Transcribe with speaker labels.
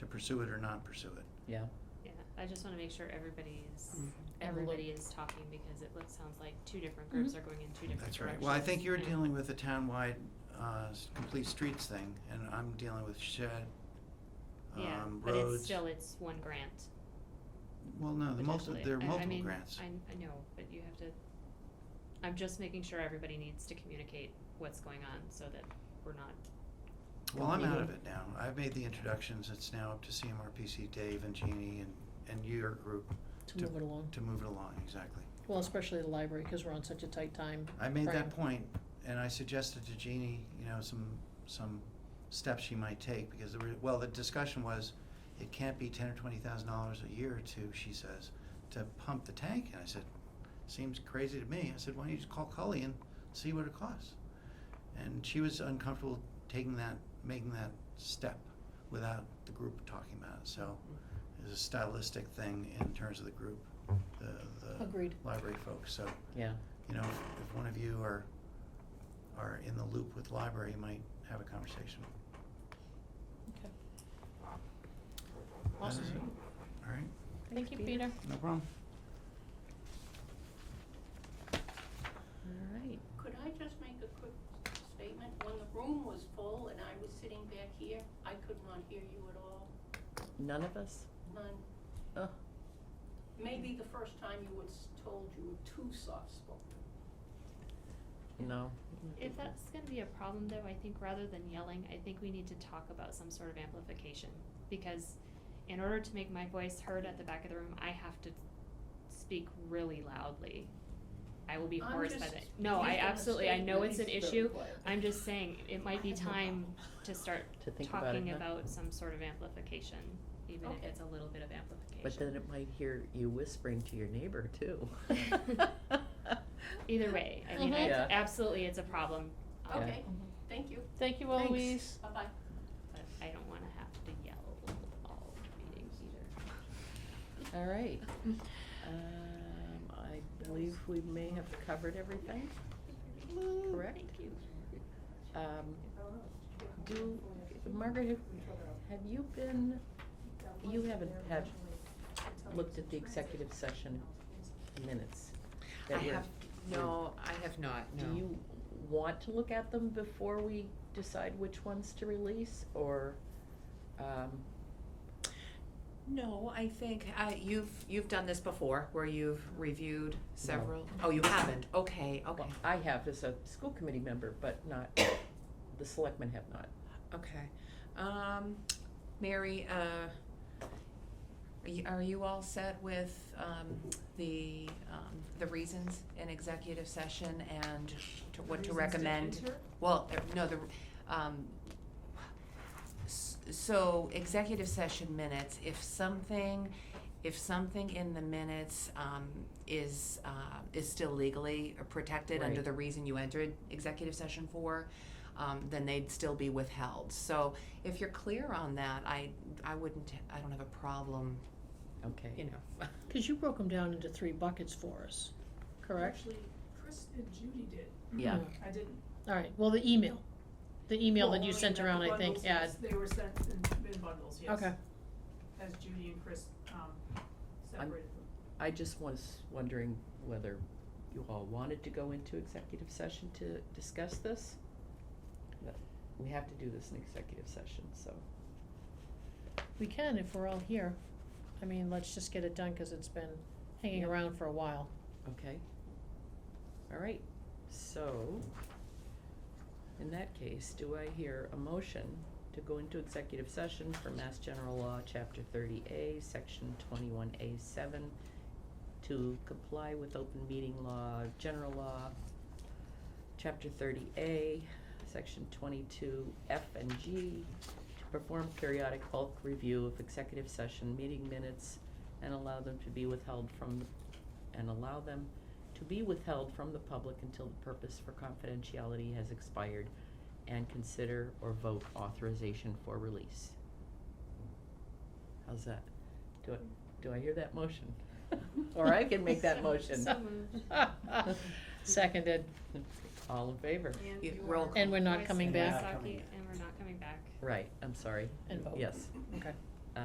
Speaker 1: pursue it or not pursue it.
Speaker 2: yeah.
Speaker 3: Yeah, I just wanna make sure everybody's,
Speaker 1: Mm-hmm.
Speaker 2: Mm.
Speaker 3: everybody is Mm-hmm. talking because it looks, sounds like two different groups
Speaker 4: Mhm.
Speaker 3: are going in two different directions.
Speaker 1: That's right. Well, I think you're
Speaker 3: Yeah.
Speaker 1: dealing with the townwide, uh, s- complete streets thing, and I'm dealing with shed,
Speaker 3: Yeah,
Speaker 1: um, roads.
Speaker 3: but it's still, it's one grant
Speaker 1: Well, no, the multi,
Speaker 3: potentially.
Speaker 1: there are
Speaker 3: I- I
Speaker 1: multiple
Speaker 3: mean,
Speaker 1: grants.
Speaker 3: I, I know, but you have to, I'm just making sure everybody needs to communicate what's going on so that we're not,
Speaker 1: Well, I'm out
Speaker 2: Mhm.
Speaker 1: of it now. I've made the introductions. It's now up to CMRPC, Dave and Jeannie and, and your group
Speaker 4: to move it along.
Speaker 1: to move it along, exactly.
Speaker 4: Well, especially the library, cause we're on such a tight time.
Speaker 1: I made
Speaker 4: frame.
Speaker 1: that point and I suggested to Jeannie, you know, some, some steps she might take because there were, well, the discussion was it can't be ten or twenty thousand dollars a year or two, she says, to pump the tank. And I said, seems crazy to me. I said, why don't you just call Cully and see what it costs? And she was uncomfortable taking that, making that step without the group talking about it. So it's a stylistic thing in terms of the group, the, the
Speaker 4: Agreed.
Speaker 1: library folks. So
Speaker 2: Yeah,
Speaker 1: you know, if, if one of you are, are in the loop with library, you might have a conversation.
Speaker 4: Okay.
Speaker 1: That
Speaker 4: Awesome.
Speaker 1: is it. All right,
Speaker 3: thank you, Peter.
Speaker 1: no problem.
Speaker 2: all right.
Speaker 5: Could I just make a quick statement? When the room was full and I was sitting back here, I could not hear you at all,
Speaker 2: None of us?
Speaker 5: none.
Speaker 2: Ugh.
Speaker 5: Maybe the first time you was told you were too soft-spoken.
Speaker 2: No.
Speaker 3: If that's gonna be a problem though, I think rather than yelling, I think we need to talk about some sort of amplification. Because in order to make my voice heard at the back of the room, I have to speak really loudly. I will be
Speaker 5: I'm
Speaker 3: hoarse by
Speaker 5: just
Speaker 3: the, no, I
Speaker 5: making a
Speaker 3: absolutely, I know
Speaker 5: statement.
Speaker 3: it's an
Speaker 5: It's
Speaker 3: issue.
Speaker 5: very quiet.
Speaker 3: I'm just saying, it might be time to start
Speaker 2: To think about it,
Speaker 3: talking
Speaker 2: huh?
Speaker 3: about some sort of amplification, even if
Speaker 5: Okay.
Speaker 3: it's a little bit of amplification.
Speaker 2: But then it might hear you whispering to your neighbor too.
Speaker 3: Either way, I mean,
Speaker 4: Mhm.
Speaker 3: I-
Speaker 2: Yeah.
Speaker 3: absolutely, it's a problem, um,
Speaker 5: Okay, thank you,
Speaker 4: Thank you,
Speaker 2: Thanks.
Speaker 4: Eloise.
Speaker 5: bye-bye.
Speaker 3: but I don't wanna have to yell all meetings either.
Speaker 2: All right. Um, I believe we may have covered everything. Correct.
Speaker 3: Thank you.
Speaker 2: Um, do, Margaret, have- have you been, you haven't have looked at the executive session minutes?
Speaker 6: I
Speaker 2: that were-
Speaker 6: have, no, I have not, no.
Speaker 2: Do you want to look at them before we decide which ones to release, or, um,
Speaker 6: No, I think, uh, you've, you've done this before, where you've reviewed several, oh, you haven't, okay, okay,
Speaker 2: well, I have as a school committee member, but not, the selectmen have not.
Speaker 6: okay. Um, Mary, uh, are you, are you all set with, um, the, um, the reasons in executive session and to, what to recommend? Well, uh, no, the, um, s- so executive session minutes, if something, if something in the minutes, um, is, uh, is still legally protected under
Speaker 2: Right.
Speaker 6: the reason you entered executive session for, um, then they'd still be withheld. So if you're clear on that, I, I wouldn't, I don't have a problem,
Speaker 2: Okay.
Speaker 6: you know.
Speaker 4: Cause you broke them down into three buckets for us, correct?
Speaker 7: Actually, Chris and Judy did.
Speaker 2: Yeah.
Speaker 7: I didn't.
Speaker 4: Alright, well, the email, the email that you
Speaker 7: Well,
Speaker 4: sent
Speaker 7: the
Speaker 4: around, I
Speaker 7: bundles,
Speaker 4: think, had,
Speaker 7: yes, They were sent in, in bundles, yes.
Speaker 4: okay,
Speaker 7: As Judy and Chris, um, separated them.
Speaker 2: I just was wondering whether you all wanted to go into executive session to discuss this? But We have to do this in executive session, so.
Speaker 4: we can if we're all here. I mean, let's just get it done, cause it's been hanging
Speaker 2: Yeah.
Speaker 4: around for a while.
Speaker 2: Okay. All right, so, in that case, do I hear a motion to go into executive session for Mass General Law, Chapter thirty A, Section twenty-one A seven, to comply with open meeting law, general law, Chapter thirty A, Section twenty-two F and G, to perform periodic bulk review of executive session meeting minutes and allow them to be withheld from the and allow them to be withheld from the public until the purpose for confidentiality has expired and consider or vote authorization for release. How's that? Do I, do I hear that motion? Or I can make that
Speaker 3: So-
Speaker 2: motion.
Speaker 3: so moved.
Speaker 4: Seconded,
Speaker 2: All in favor?
Speaker 7: And
Speaker 6: You-
Speaker 7: you
Speaker 6: roll
Speaker 7: are-
Speaker 4: and we're not
Speaker 3: Voice
Speaker 4: coming
Speaker 3: of
Speaker 1: And we're
Speaker 4: back,
Speaker 1: not coming
Speaker 3: Wasaki,
Speaker 1: back.
Speaker 3: And we're not coming back.
Speaker 2: Right, I'm sorry.
Speaker 4: and vote,
Speaker 2: Yes.
Speaker 4: okay,